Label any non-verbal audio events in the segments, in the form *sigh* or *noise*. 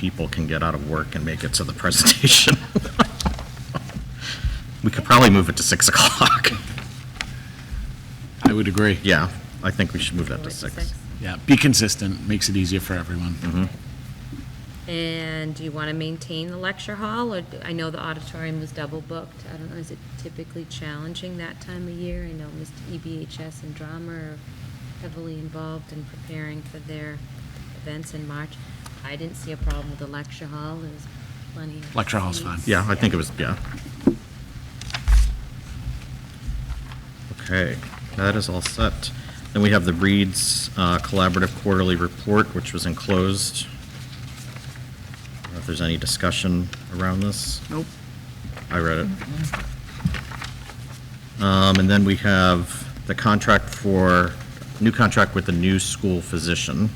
people can get out of work and make it to the presentation. *laughs* We could probably move it to 6 o'clock. *laughs* I would agree. Yeah, I think we should move that to Move it 6. Yeah, be consistent, makes it easier for everyone. Mm. Mm-hmm. And do you want to maintain the lecture hall, or, I know the auditorium was double booked, I don't know, is it typically challenging that time of year? I know E Mr. EBHS and drama are heavily involved in preparing for their events in March. I didn't see a problem with the lecture hall, there was plenty of. Lecture hall's fine. seats. Yeah, I think it was, yeah. Okay, that is all set. Then we have the Reed's uh, Collaborative Quarterly Report, which was enclosed. I don't know if there's any discussion around this. Nope. I read it. Um, And then we have the contract for, new contract with the new school physician,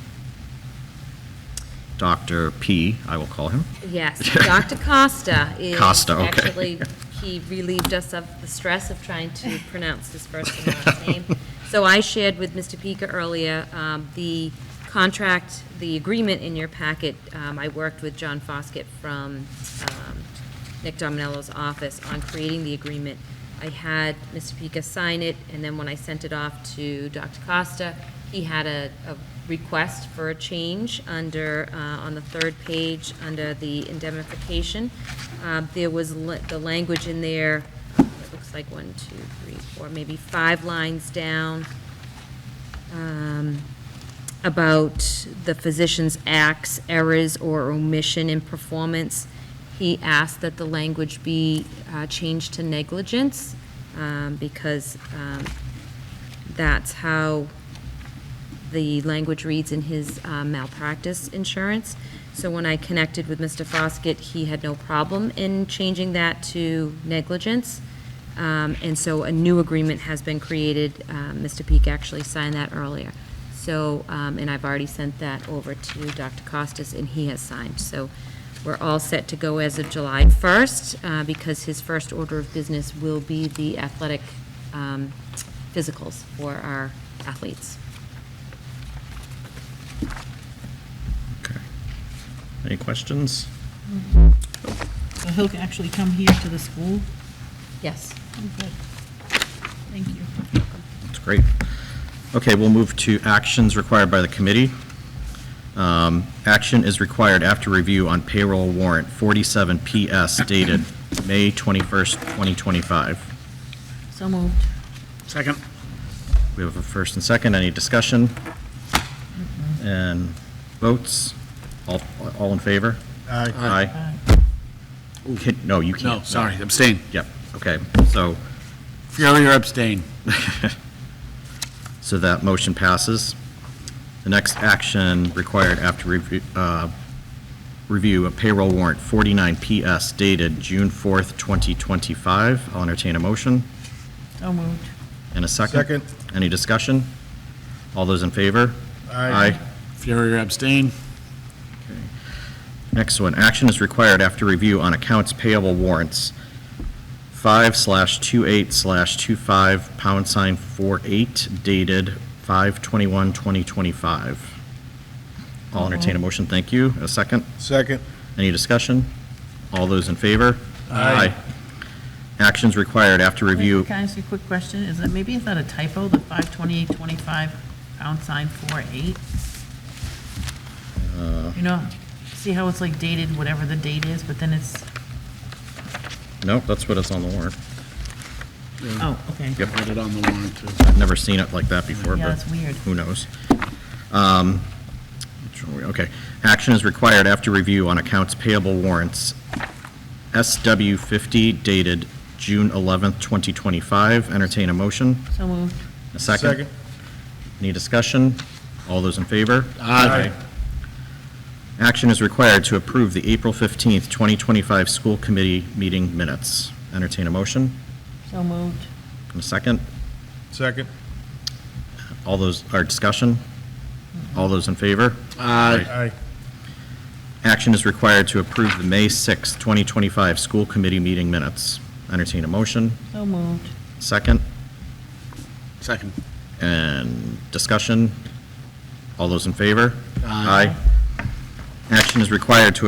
Dr. P, I will call him. Yes, Dr. Costa is. Costa, okay. Actually, he relieved us of the stress of trying to pronounce his first and *laughs* last name. So I shared with Mr. Pika earlier, um, the contract, the agreement in your packet. Um, I worked with John Foskett from, um, Nick Dominello's office on creating the agreement. I had Mr. Pika sign it, and then when I sent it off to Dr. Costa, he had a, a request for a change under, uh, on the third page, under the indemnification. Uh, There was la- the language in there, it looks like one, two, three, four, maybe five lines down, um, about the physician's acts, errors, or omission in performance. He asked that the language be uh, changed to negligence, um, because um, that's how the language reads in his uh, malpractice insurance. So when I connected with Mr. Foskett, he had no problem in changing that to negligence. Um, And so a new agreement has been created. Um, Mr. Peak actually signed that earlier. So, um, and I've already sent that over to Dr. Costas, and he has signed. So we're all set to go as of July 1st, uh, because his first order of business will be the athletic um, physicals for our athletes. Okay. Any questions? So he'll actually come here to the school? Yes. Good. Thank you. That's great. Okay, we'll move to actions required by the committee. Um, Action is required after review on payroll warrant 47 PS dated May 21st, 2025. So moved. Second. We have a first and second. Any discussion? And votes? All, all in favor? Aye. Aye. Can- No, you can't. No, sorry, abstain. Yep, okay. So, Fury or abstain? *laughs* so that motion passes. The next action required after review, uh, review of payroll warrant 49 PS dated June 4th, 2025. I'll entertain a motion So moved. in a second. Second. Any discussion? All those in favor? Aye. Fury or abstain? Next one, action is required after review on accounts payable warrants. Five slash two eight slash two five pound sign four eight dated five twenty-one twenty twenty-five. I'll entertain a motion, thank you. A second? Second. Any discussion? All those in favor? Aye. Actions required after review. Can I ask you a quick question? Is that, maybe is that a typo, the 52825 pound sign 48? You know, see how it's like dated, whatever the date is, but then it's, No, that's what it's on the warrant. oh, okay. Yep. Put it on the warrant, too. I've never seen it like that before, Yeah, but that's weird. who knows? Um, which one we- Okay. Action is required after review on accounts payable warrants. SW 50 dated June 11th, 2025. Entertain a motion. So moved. A second? Any discussion? All those in favor? Aye. Action is required to approve the April 15th, 2025 school committee meeting minutes. Entertain a motion. So moved. A second? Second. All those, our discussion? All those in favor? Aye. Aye. Action is required to approve the May 6, 2025 school committee meeting minutes. Entertain a motion, So moved. second, Second. and discussion. All those in favor? Aye. Action is required to